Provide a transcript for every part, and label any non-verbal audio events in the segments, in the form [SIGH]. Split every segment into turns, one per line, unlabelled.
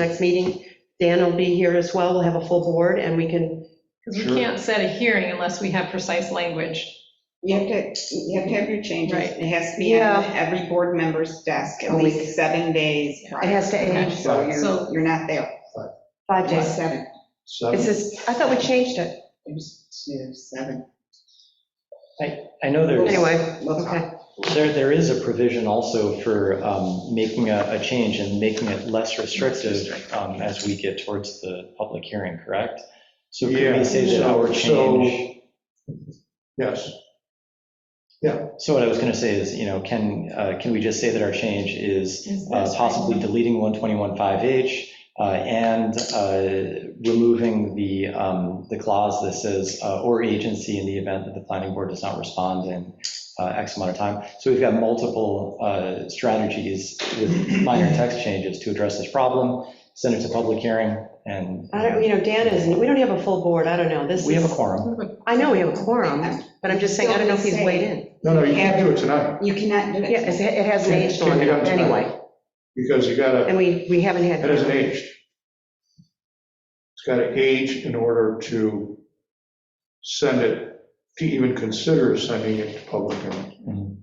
next meeting. Dan will be here as well, we'll have a full board, and we can,
Because we
Sure.
can't set a hearing unless we have precise language.
You have to, you have to have your changes.
Right.
It has to be on every board member's desk
A
at
week.
least seven days
Yeah.
prior.
it has to age
So
So-
you're, you're not there.
five
It's
days.
seven.
It
Seven,
says, I thought we changed it.
It was two, seven.
I know there's,
Anyway,
We'll talk.
okay.
there, there is a provision also for um, making a, a change and making it less restrictive um, as we get towards the public hearing, correct? So could
Yeah,
we say that
so-
our change,
yes.
so what I was going to say is, you know, can, uh, can we just say that our change is uh, possibly deleting 121.5H uh, and uh, removing the, um, the clause that says, uh, or agency in the event that the planning board does not respond in uh, X amount of time. So we've got multiple uh, strategies with minor text changes to address this problem, send it to public hearing, and uh,
I don't, you know, Dan isn't, we don't have a full board, I don't know, this
we have a
is,
quorum.
I know we have a quorum, but I'm just saying, I don't know if he's weighed in.
No, no, you can't do it tonight,
You cannot do it.
Yeah, it's- it hasn't aged on it, anyway,
because you gotta,
and we, we haven't
it
had,
hasn't aged. It's gotta age in order to send it, to even consider sending it to public hearing.
Mm-hmm.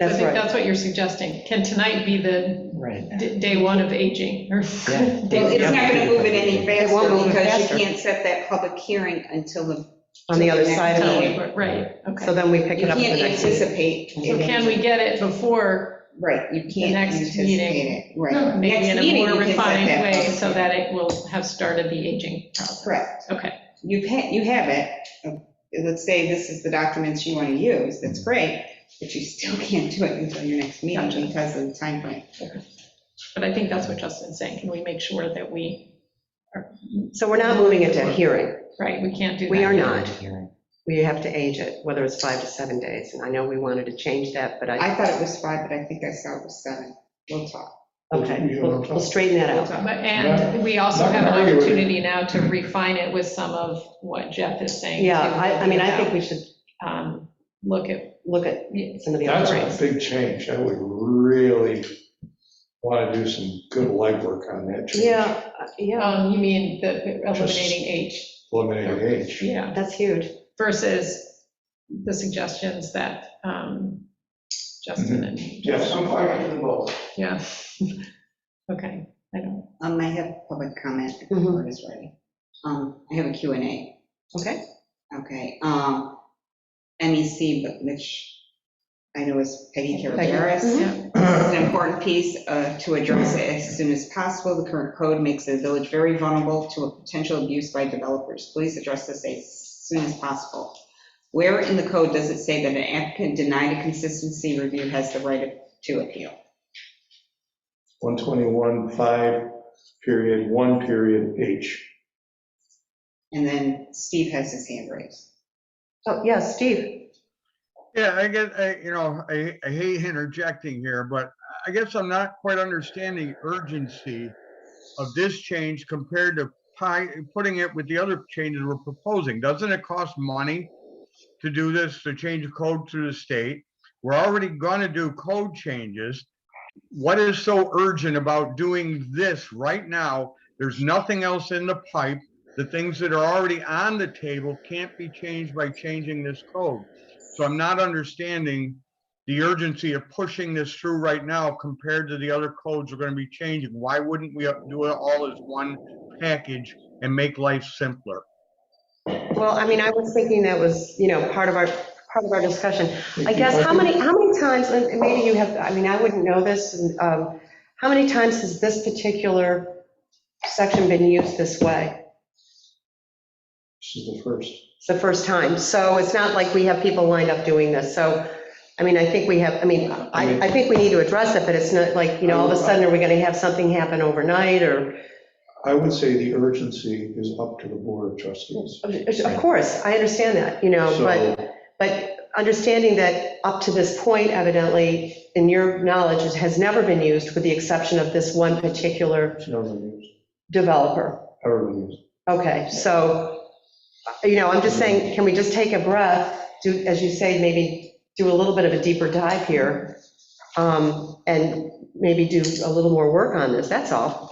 I
that's
think
right.
that's what you're suggesting. Can tonight be the
Right.
d- day one of aging? or-
Yeah.
[LAUGHS]
Well,
day
it's
zero?
not going to move it any
It won't
faster
move it
because
faster.
you can't set that public hearing until the.
On the other side of it,
Until we- Right, okay.
so then we pick
You
it up at the
can't
next meeting.
anticipate.
So can we get it before
Right, you
the
can't
next
anticipate
meeting?
it. Right.
Maybe
Next
in a
meeting,
more
you can set
refined
that
way
up.
so that it will have started the aging process.
Correct.
Okay,
You've had, you have it. Uh, Let's say this is the documents you want to use, that's great, but you still [LAUGHS] can't do it until your next
Gotcha.
meeting because of the time frame.
but I think that's what Justin's saying. Can we make sure that we,
So we're not moving it to a hearing,
right, we can't do that.
we are not,
Hearing.
we have to age it, whether it's five to seven days, and I know we wanted to change that, but I,
I thought it was five, but I think I saw it was seven. We'll talk.
okay, we'll we'll straighten that
We'll
out.
talk.
But- And we also
Not
have an
gonna argue with you.
opportunity now to refine it with some of what Jeff is saying.
Yeah,
too,
I, I mean, I think we should
um, Look at,
look at some of the
That's
other
a
rates.
big change, I would really want to do some good legwork on that change.
Yeah, uh, yeah,
um, you mean the eliminating H,
Eliminating age.
yeah,
that's huge.
versus the suggestions that um, Justin and.
Yes, I'm fine with the vote.
Yeah. [LAUGHS] Okay, I don't,
Um, I have public comment if the
Mhm.
board is ready. Um, I have a Q and A.
Okay.
Okay, um, MEC, but which I know is Peggy
Peggy.
Caraveras.
yeah,
[CLEARS THROAT]
This is an important piece uh, to address it as soon as possible. The current code makes the village very vulnerable to a potential abuse by developers. Please address this as soon as possible. Where in the code does it say that an applicant denied a consistency review has the right to appeal?
121, 5, period, 1, period, H.
And then Steve has his hand raised.
Oh, yeah, Steve,
Yeah, I guess, I, you know, I, I hate interjecting here, but I guess I'm not quite understanding urgency of this change compared to pi- putting it with the other changes we're proposing. Doesn't it cost money to do this, to change the code through the state? We're already gonna do code changes. What is so urgent about doing this right now? There's nothing else in the pipe. The things that are already on the table can't be changed by changing this code. So I'm not understanding the urgency of pushing this through right now compared to the other codes we're gonna be changing. Why wouldn't we do it all as one package and make life simpler?
well, I mean, I was thinking that was, you know, part of our, part of our discussion. I
Thank you.
guess, how many, how many times, and and maybe you have, I mean, I wouldn't know this, and, um, how many times has this particular section been used this way?
This is the first.
It's the first time, so it's not like we have people lined up doing this, so, I mean, I think we have, I mean, I, I think we need to address it, but it's not like, you know, all of a sudden, are we gonna have something happen overnight, or?
I would say the urgency is up to the board of trustees.
Of course, I understand that, you know, but,
So,
but understanding that up to this point, evidently, in your knowledge, it has never been used with the exception of this one particular
it's never used,
developer.
ever been used.
Okay, so, you know, I'm just saying, can we just take a breath, do, as you say, maybe do a little bit of a deeper dive here, um, and maybe do a little more work on this, that's all.